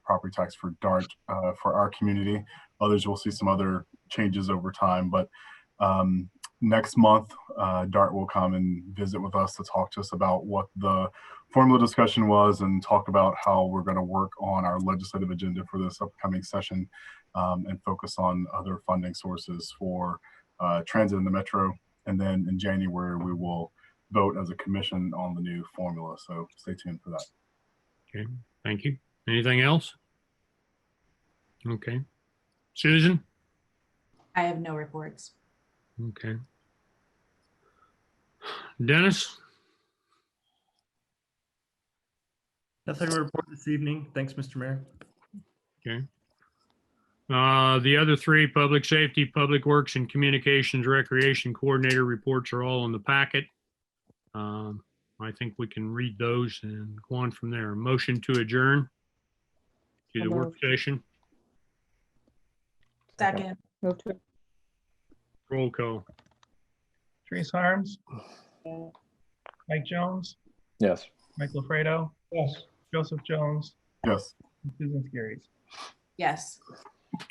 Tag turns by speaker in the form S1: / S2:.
S1: property tax for Dart, uh, for our community. Others will see some other changes over time, but, um, next month, uh, Dart will come and visit with us to talk to us about what the formula discussion was and talk about how we're going to work on our legislative agenda for this upcoming session um, and focus on other funding sources for uh, transit in the metro. And then in January, we will vote as a commission on the new formula. So stay tuned for that.
S2: Okay, thank you. Anything else? Okay. Susan?
S3: I have no reports.
S2: Okay. Dennis?
S4: Nothing to report this evening. Thanks, Mr. Mayor.
S2: Uh, the other three, Public Safety, Public Works, and Communications Recreation Coordinator reports are all in the packet. Um, I think we can read those and go on from there. Motion to adjourn to the
S5: So
S2: work
S5: moved.
S2: session.
S3: Second,
S5: Move to,
S2: Roll call.
S6: Teresa Harms. Mike Jones,
S7: Yes.
S6: Mike LaFredo. Yes. Joseph Jones,
S1: Yes.
S6: and Susan Skiris.
S3: yes.